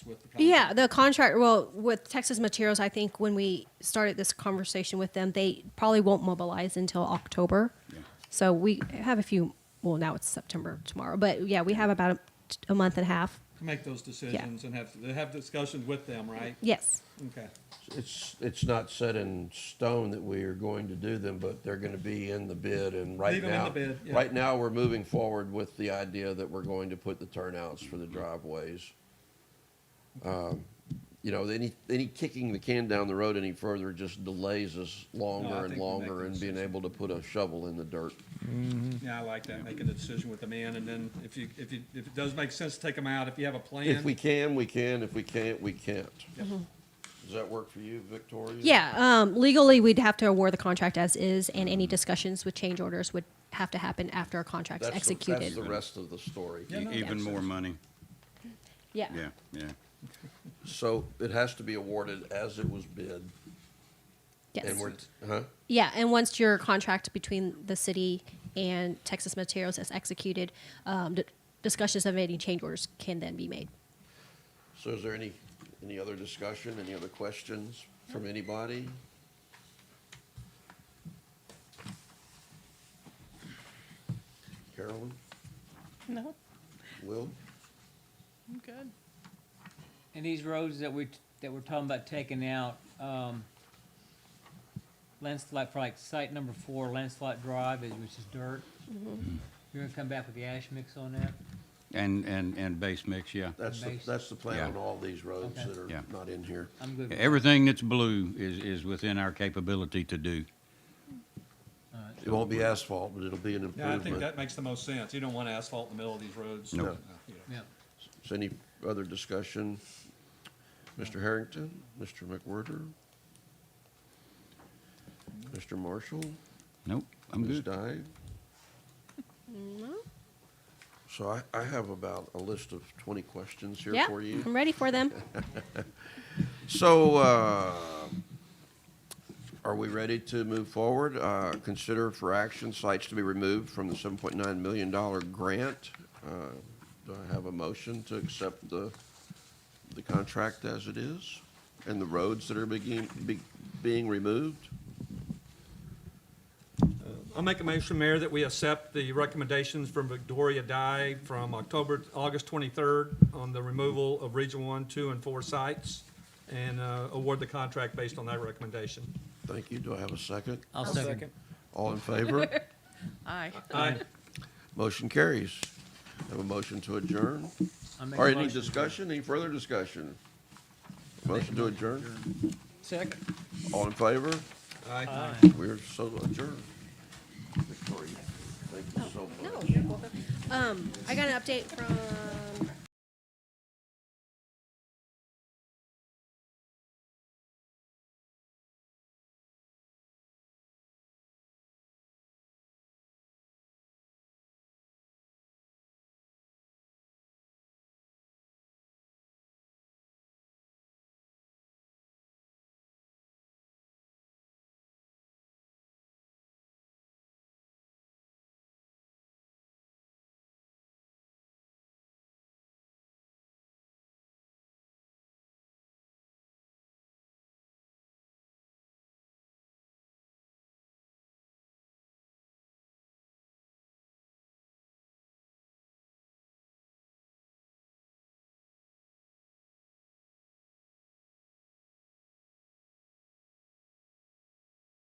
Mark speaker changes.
Speaker 1: with the contract?
Speaker 2: Yeah, the contract. Well, with Texas Materials, I think when we started this conversation with them, they probably won't mobilize until October. So we have a few. Well, now it's September tomorrow, but yeah, we have about a, a month and a half.
Speaker 1: Make those decisions and have, have discussions with them, right?
Speaker 2: Yes.
Speaker 1: Okay.
Speaker 3: It's, it's not set in stone that we are going to do them, but they're gonna be in the bid and right
Speaker 1: Leave 'em in
Speaker 3: now.
Speaker 1: the bid, yeah.
Speaker 3: Right now, we're moving forward with the idea that we're going to put the turnouts for the driveways. Um, You know, any, any kicking the can down the road any further just delays us
Speaker 1: No, I
Speaker 3: longer and
Speaker 1: think we'll make
Speaker 3: longer
Speaker 1: the
Speaker 3: in being
Speaker 1: decision.
Speaker 3: able to put a shovel in the dirt. Mm-hmm.
Speaker 1: Yeah, I like that, making a decision with the man, and then if you, if you, if it does make sense, take them out, if you have a plan.
Speaker 3: If we can, we can. If we can't, we can't.
Speaker 1: Yep.
Speaker 2: Mm-hmm.
Speaker 3: Does that work for you, Victoria?
Speaker 2: Yeah. Um, legally, we'd have to award the contract as is, and any discussions with change orders would have to happen after our contract's
Speaker 3: That's the-
Speaker 2: executed.
Speaker 3: That's the rest of the story.
Speaker 1: Yeah, no,
Speaker 4: E, Even
Speaker 2: yeah.
Speaker 4: more money,
Speaker 2: yeah.
Speaker 4: yeah, yeah.
Speaker 3: So it has to be awarded as it was bid.
Speaker 2: Yes.
Speaker 3: And we're, huh?
Speaker 2: Yeah, and once your contract between the city and Texas Materials is executed, um, d- discussions of any change orders can then be made.
Speaker 3: So is there any, any other discussion, any other questions from anybody? Carolyn,
Speaker 5: No,
Speaker 3: Will?
Speaker 5: I'm good.
Speaker 6: And these roads that we, that we're talking about taking out, um, landslide, for like site number four, landslide drive, is, which is dirt. Mm-hmm. You're gonna come back with the ash mix on that?
Speaker 4: And, and, and base mix, yeah.
Speaker 3: That's, the
Speaker 6: Mason.
Speaker 3: that's the plan
Speaker 4: Yeah.
Speaker 3: on all these roads
Speaker 6: Okay.
Speaker 3: that are
Speaker 4: Yeah.
Speaker 3: not in here.
Speaker 6: I'm good with that.
Speaker 4: Everything that's blue is, is within our capability to do.
Speaker 3: It won't be asphalt, but it'll be an
Speaker 1: Yeah, I think
Speaker 3: improvement.
Speaker 1: that makes the most sense, you don't want asphalt in the middle of these roads.
Speaker 4: No.
Speaker 1: Yeah.
Speaker 6: Yeah.
Speaker 3: So any other discussion? Mr. Harrington, Mr. McWhorter? Mr. Marshall?
Speaker 4: Nope, I'm
Speaker 3: Ms.
Speaker 4: good.
Speaker 3: Dye? So I, I have about a list of twenty questions here
Speaker 2: yeah, Mm-hmm.
Speaker 3: for you.
Speaker 2: I'm ready for them.
Speaker 3: So, uh, are we ready to move forward? Uh, Consider for action sites to be removed from the $7.9 million grant. Uh, Do I have a motion to accept the, the contract as it is? And the roads that are being, be- being removed?
Speaker 1: I'll make a motion, Mayor, that we accept the recommendations from Victoria Dye from October, August 23rd on the removal of Region 1, 2, and 4 sites, and uh, award the contract based on that recommendation.
Speaker 3: Thank you. Do I have a second?
Speaker 6: I'll second.
Speaker 3: All in favor?
Speaker 5: Aye.
Speaker 1: Aye.
Speaker 3: Motion carries. Have a motion to adjourn?
Speaker 6: I'll make a
Speaker 3: Or any
Speaker 6: motion.
Speaker 3: discussion, any further discussion? Motion to adjourn?
Speaker 6: Second.
Speaker 3: All in favor?
Speaker 1: Aye.
Speaker 3: We're so adjourned. Victoria, thank you so much.
Speaker 2: No. Um, I got an update from